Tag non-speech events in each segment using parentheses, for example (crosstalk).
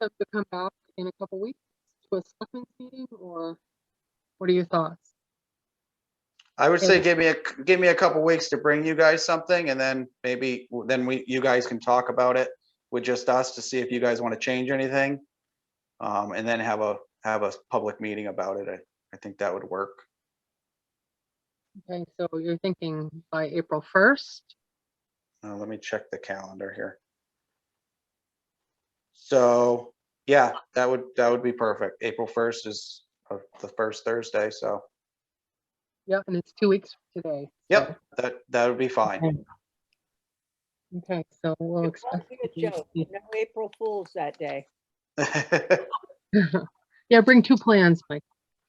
them to come back in a couple weeks to a selectmen's meeting or what are your thoughts? I would say Yeah. give me a, c- give me a couple weeks to bring you guys something and then maybe, w- then we, you guys can talk about it with just us to see if you guys want to change anything. Um, and then have a, have a public meeting about it. I, I think that would work. Okay, so you're thinking by April first? Uh, let me check the calendar here. So, yeah, that would, that would be perfect. April first is uh, the first Thursday, so, Yeah, and it's two weeks from today. so- yep, that, that would be fine. (laughs) Okay. Okay, so we'll It expect. (laughs) won't be you a to joke. see- No April Fools that day. Yeah, bring two plans, Mike,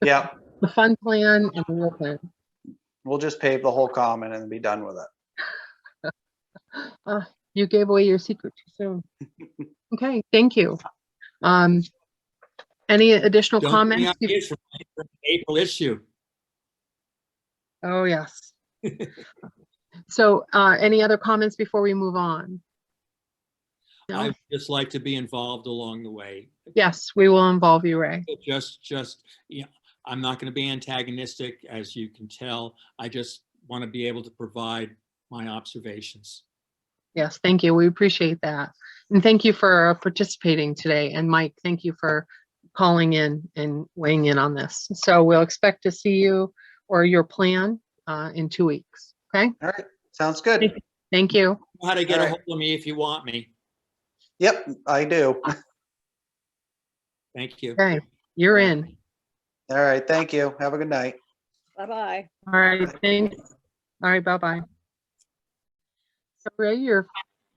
Yep. the fun plan and the real plan. (gasps) We'll just pave the whole common and be done with it. Uh, you gave away your secret too soon. Okay, thank you. Um, any additional Don't bring comments? up the issue. April issue. Oh, yes. So, uh, any other comments before we move on? No? I'd just like to be involved along the way. Yes, we will involve you, Ray. Just, just, yeah, I'm not going to be antagonistic, as you can tell. I just want to be able to provide my observations. Yes, thank you. We appreciate that. And thank you for participating today. And Mike, thank you for calling in and weighing in on this. So we'll expect to see you or your plan uh, in two weeks. Okay, All right, sounds good. thank you. You know How to get a Alright. hold of me if you want me. Yep, I do. Thank you. Okay, you're in. All right, thank you. Have a good night. Bye-bye. All right, thanks. All right, bye-bye. So Ray, you're,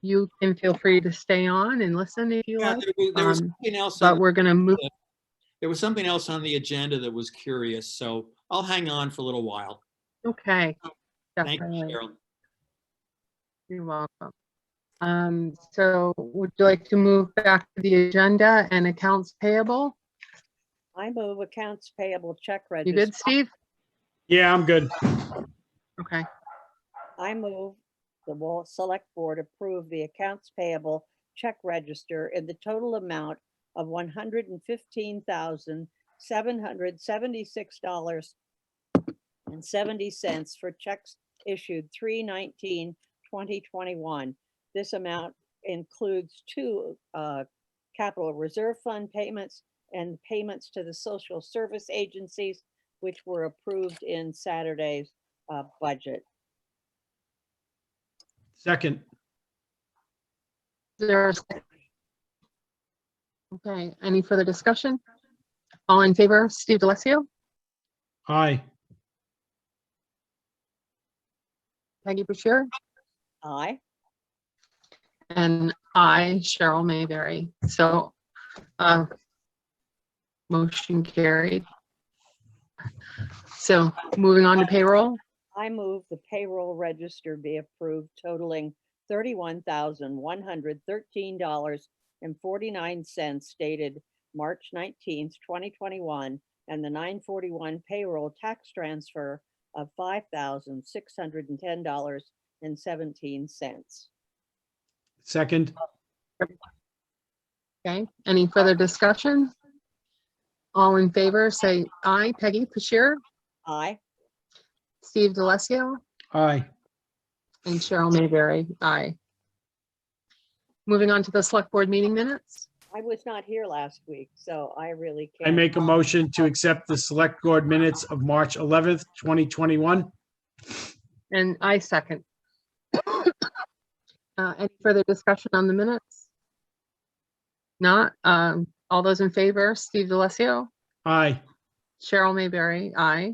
you can feel free to stay on and listen if you Yeah, like, There was- there was um, something else, but on- we're gonna move, there was something else on the agenda that was curious, so I'll hang on for a little while. okay. Thank you, definitely. Cheryl. You're welcome. Um, so would you like to move back to the agenda and accounts payable? I move accounts payable check You register. good, Steve? Yeah, I'm good. Okay, I move the Wall Select Board approve the accounts payable check register in the total amount of one hundred and fifteen thousand, seven hundred seventy-six dollars and seventy cents for checks issued 2021. This amount includes two uh, capital reserve fund payments and payments to the social service agencies, which were approved in Saturday's uh, budget. Second, there's. Okay, any further discussion? All in favor, Steve DeLazio, aye. Peggy Bashir, Aye. and I, Cheryl Mayberry. So, uh, motion carried. So moving on to payroll, I move the payroll register be approved totaling thirty-one thousand, one hundred thirteen dollars and forty-nine cents dated March nineteenth, twenty twenty-one, and the nine forty-one payroll tax transfer of five thousand, six hundred and ten dollars and seventeen cents. Second, okay? Any further discussion? All in favor, say aye. Peggy Bashir, Aye. Steve DeLazio, aye. and Cheryl Mayberry. Aye. Moving on to the select board meeting minutes. I was not here last week, so I really can't. I make a motion to accept the select board minutes of March 11th, 2021. And I second. (coughs) Uh, Any further discussion on the minutes? Not, um, all those in favor, Steve DeLazio, Aye. Cheryl Mayberry, aye.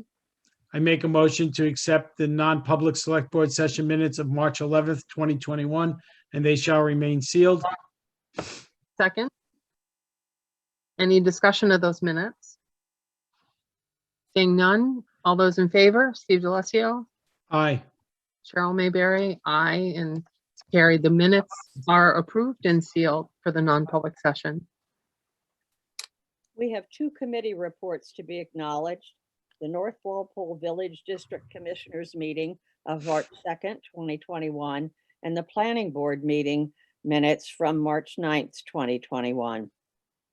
I make a motion to accept the non-public select board session minutes of March 11th, 2021, and they shall remain sealed. Second. Any discussion of those minutes? Seeing none, all those in favor, Steve DeLazio, Aye. Cheryl Mayberry, aye, and Carrie, the minutes are approved and sealed for the non-public session. We have two committee reports to be acknowledged. The North Walpole Village District Commissioners Meeting of March 2nd, 2021, and the Planning Board Meeting Minutes from March 9th, 2021.